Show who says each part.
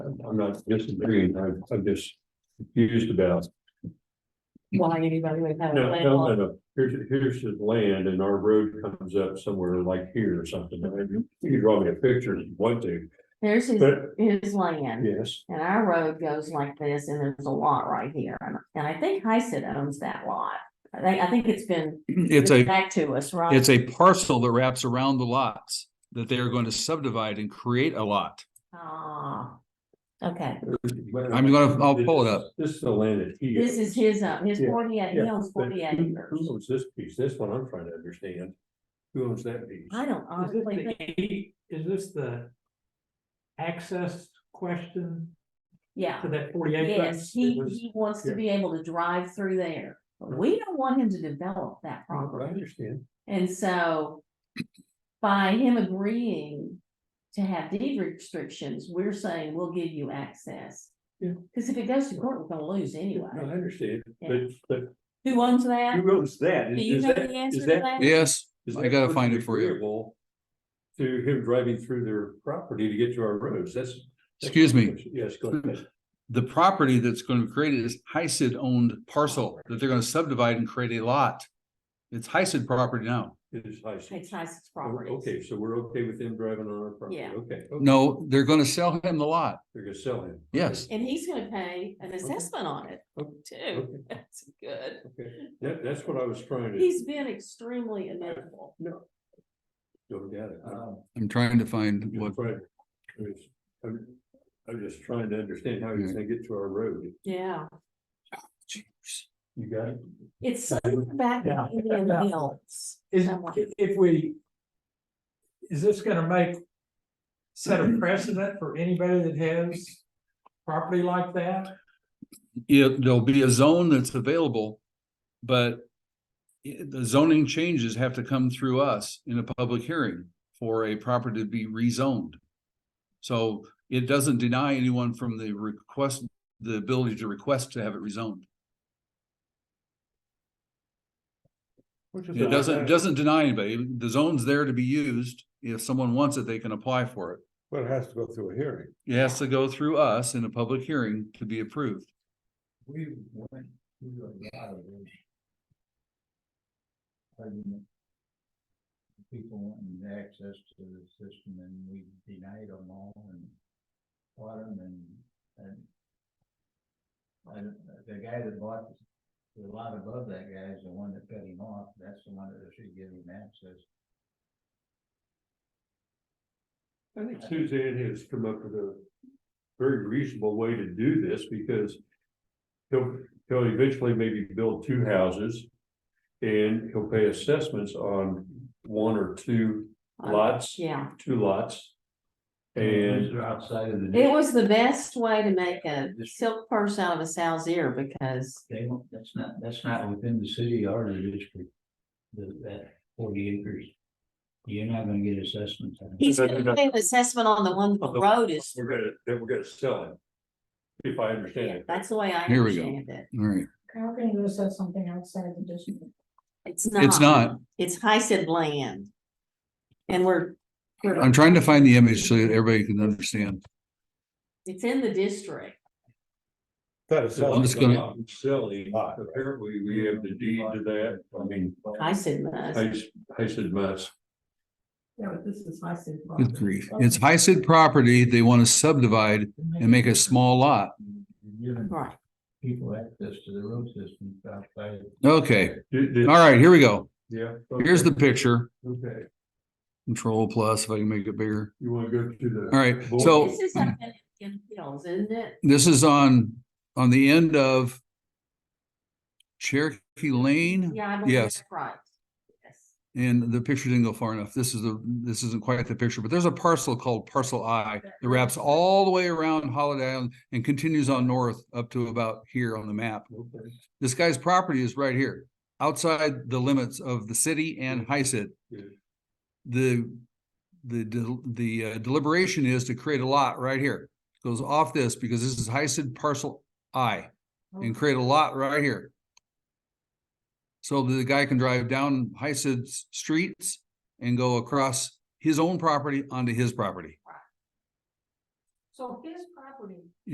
Speaker 1: I'm not disagreeing, I'm, I'm just confused about.
Speaker 2: Why evaluate that?
Speaker 1: No, no, no, no, here's, here's his land and our road comes up somewhere like here or something, I mean, you can draw me a picture if you want to,
Speaker 2: There's his,
Speaker 1: but,
Speaker 2: his land.
Speaker 1: yes.
Speaker 2: And our road goes like this and there's a lot right here. And, and I think Hyson owns that lot. I think, I think it's been
Speaker 3: It's a,
Speaker 2: back to us, right?
Speaker 3: it's a parcel that wraps around the lots that they are going to subdivide and create a lot.
Speaker 2: Ah, okay.
Speaker 3: I'm gonna- I'll pull it up.
Speaker 1: This is the land that he.
Speaker 2: This is his, uh, his
Speaker 1: Yeah,
Speaker 2: forty, he
Speaker 1: yeah,
Speaker 2: owns
Speaker 1: But
Speaker 2: forty
Speaker 1: who-
Speaker 2: acres.
Speaker 1: Who owns this piece? That's what I'm trying to understand. Who owns that piece?
Speaker 2: I don't
Speaker 4: Is it
Speaker 2: honestly think,
Speaker 4: the eight- is this the access question
Speaker 2: yeah.
Speaker 4: to that forty acres?
Speaker 2: Yes, he,
Speaker 4: It was-
Speaker 2: he wants to
Speaker 1: yeah.
Speaker 2: be able to drive through there. But we don't want him to develop that
Speaker 1: I
Speaker 2: property.
Speaker 1: understand.
Speaker 2: And so by him agreeing to have deed restrictions, we're saying we'll give you access.
Speaker 1: Yeah.
Speaker 2: Cause if it goes to court, we're gonna lose
Speaker 1: No, I
Speaker 2: anyway.
Speaker 1: understand,
Speaker 2: Yeah.
Speaker 1: but, but
Speaker 2: Who owns that?
Speaker 1: who owns that?
Speaker 2: Do
Speaker 1: Is-
Speaker 2: you
Speaker 1: is
Speaker 2: know
Speaker 1: that-
Speaker 2: the answer
Speaker 1: is
Speaker 2: to
Speaker 1: that-
Speaker 2: that?
Speaker 3: Yes,
Speaker 1: is
Speaker 3: I
Speaker 1: that
Speaker 3: gotta find it for you.
Speaker 1: agreeable To him driving through their property to get to our roads, that's. that's-
Speaker 3: excuse me.
Speaker 1: Yes, go ahead.
Speaker 3: The property that's going to be created is HICID owned parcel that they're going to subdivide and create a lot. It's HICID property now.
Speaker 1: It is high. seas.
Speaker 2: It's Tyson's
Speaker 1: Oh,
Speaker 2: property.
Speaker 1: Okay, so we're okay with them driving on our property,
Speaker 2: Yeah.
Speaker 1: okay.
Speaker 3: No, they're going to sell him the lot.
Speaker 1: They're gonna sell him.
Speaker 3: Yes.
Speaker 2: And he's gonna pay an assessment on it
Speaker 1: Oh,
Speaker 2: too.
Speaker 1: Okay,
Speaker 2: That's good.
Speaker 1: okay. That, that's what I was trying to.
Speaker 2: He's been extremely amenable.
Speaker 1: No. Don't doubt it. I-
Speaker 3: I'm trying to find Um,
Speaker 1: Just
Speaker 3: what,
Speaker 1: trying- I'm just- I'm I'm just trying to understand how he's gonna get to our road.
Speaker 2: Yeah.
Speaker 1: You got it?
Speaker 2: It's something back in
Speaker 4: Yeah.
Speaker 2: the hills.
Speaker 4: Is,
Speaker 2: Somewhat.
Speaker 4: if- if we, is this gonna make, set a precedent for anybody that has property like that?
Speaker 3: it, there'll be a zone that's available, but i- the zoning changes have to come through us in a public hearing for a property to be rezoned. So it doesn't deny anyone from the request, the ability to request to have it rezoned. It doesn't, it doesn't deny anybody. The zone's there to be used. If someone wants it, they can apply for it.
Speaker 1: Well, it has to go through a hearing.
Speaker 3: It has to go through us in a public hearing to be approved.
Speaker 5: We went through a lot of this. Argument. People wanting access to the system and we denied them all and bought them and, and. I don't- the guy that bought the lot above that guy is the one that cut him off, that's the one that should give him access.
Speaker 1: I think Suzanne has come up with a very reasonable way to do this because he'll, he'll eventually maybe build two houses and he'll pay assessments on one or two lots,
Speaker 2: Yeah.
Speaker 1: two lots. And
Speaker 5: These are Outside of the.
Speaker 2: It was the best way to make a silk purse out of a sow's ear because,
Speaker 5: They won't, that's not, that's not within the city or the district. The, that forty acres. You're not gonna get assessments. on it.
Speaker 2: he's gonna pay an assessment on the one the road is,
Speaker 1: we're gonna, then we're gonna sell it. If I understand
Speaker 2: yeah,
Speaker 1: it.
Speaker 2: that's the way I
Speaker 3: Here we go.
Speaker 2: understand it.
Speaker 3: All right.
Speaker 6: How can you assess something outside the district?
Speaker 2: It's not.
Speaker 3: It's not.
Speaker 2: It's HICID land. And we're, we're-
Speaker 3: I'm trying to find the image so that everybody can understand.
Speaker 2: it's in the district.
Speaker 3: I'm just gonna-
Speaker 1: Silly, apparently we have the deed to that, I mean,
Speaker 2: HICID must.
Speaker 1: I, I said must.
Speaker 6: Yeah, but this is my city.
Speaker 3: Good grief. It's HICID property. They want to subdivide and make a small lot.
Speaker 5: You're giving
Speaker 2: Right.
Speaker 5: people access to the road system outside.
Speaker 3: Okay.
Speaker 1: Did-
Speaker 3: All
Speaker 1: did-
Speaker 3: right, here we go.
Speaker 1: Yeah.
Speaker 3: Here's the
Speaker 1: okay,
Speaker 3: picture.
Speaker 1: Okay,
Speaker 3: Control plus, if I can make it bigger.
Speaker 1: you wanna go to the.
Speaker 3: All right,
Speaker 1: board?
Speaker 3: so-
Speaker 2: This is up in, in hills, isn't it?
Speaker 3: This is on, on the end of Cherokee Lane.
Speaker 2: Yeah, I believe
Speaker 3: Yes.
Speaker 2: that's right. Yes.
Speaker 3: And the picture didn't go far enough. This is the, this isn't quite the picture, but there's a parcel called parcel I that wraps all the way around Holiday Island and continues on north up to about here on the map.
Speaker 1: Okay.
Speaker 3: This guy's property is right here, outside the limits of the city and HICID.
Speaker 1: Yeah.
Speaker 3: The, the, del- the uh, deliberation is to create a lot right here. Goes off this because this is HICID parcel I and create a lot right here. So that the guy can drive down HICID's streets and go across his own property onto his property.
Speaker 2: So his property